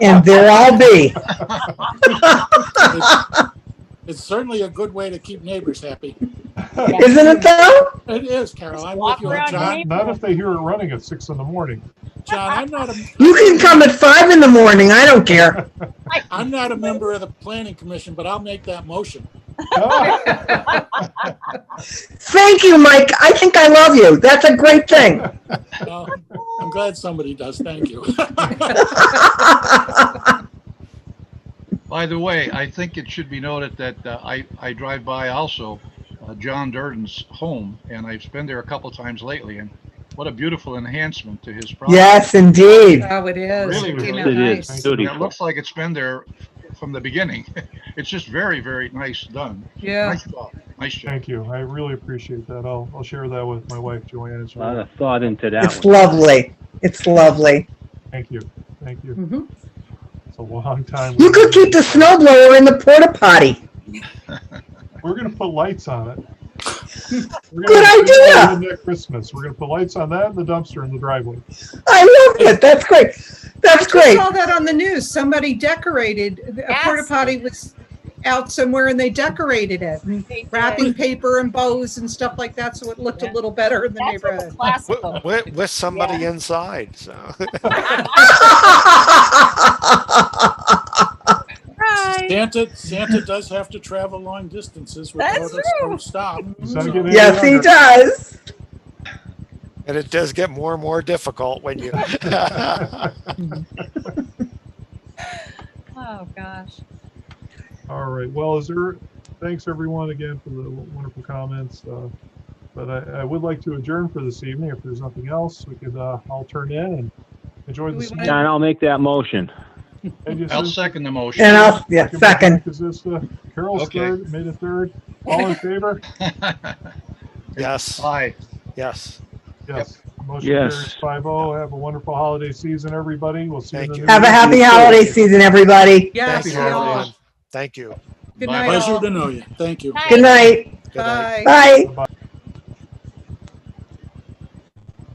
and there I'll be. It's certainly a good way to keep neighbors happy. Isn't it though? It is, Carol. I'm with Walk you on around John. your Not if they hear it running at six in the morning. John, I'm not a, You can come at five in the morning. I don't care. I'm not a member of the planning commission, but I'll make that motion. Ah, Thank you, Mike. I think I love you. That's a great thing. Uh, I'm glad somebody does. Thank you. By the way, I think it should be noted that uh, I, I drive by also uh, John Durden's home, and I've been there a couple times lately, and what a beautiful enhancement to his property. yes, indeed. Oh, it is. Really, It came really. out It is. nice. I mean, It looks like it's been there from the beginning. It's just very, very nice done. Yeah. Nice job, nice job. Thank you. I really appreciate that. I'll, I'll share that with my wife, Joanne, as A lot well. of thought into that It's one. lovely. It's lovely. Thank you. Thank you. Mhm. It's a long time. You could keep the snowblower in the porta potty. We're gonna put lights on it. We're gonna Good do that idea. Next Christmas. We're gonna put lights on that and the dumpster in the driveway. I love it. That's great. That's I great. saw that on the news. Somebody decorated, a Yes. porta potty was out somewhere and they decorated it. They did. Wrapping paper and bows and stuff like that, so it looked a little better in the That's what the neighborhood. classical. with, with, with somebody inside. So Right. Santa, Santa does have to travel long distances without That's us true. to stop. Is that getting any yes, he younger? does. and it does get more and more difficult when you. Oh, gosh. All right. Well, is there, thanks everyone again for the wonderful comments. uh, But I, I would like to adjourn for this evening. If there's nothing else, we could, uh, I'll turn in and enjoy Do the. we summer. wanna- John, I'll make that motion. Thank you, I'll sir. second the motion. And I'll yeah, Second by second. Frank Azista. Carol's Okay. third, made a third. All in favor? yes, Aye. yes. Yes. Motion Yes. carries five oh. Have a wonderful holiday season, everybody. We'll see you. in Thank the you. new Have a year. happy holiday season, everybody. Yeah, Thank see you, y'all. everyone. Thank you. Good Bye. night Pleasure all. to know you. Thank you. Good night. Good Bye. night. Bye. Bye-bye.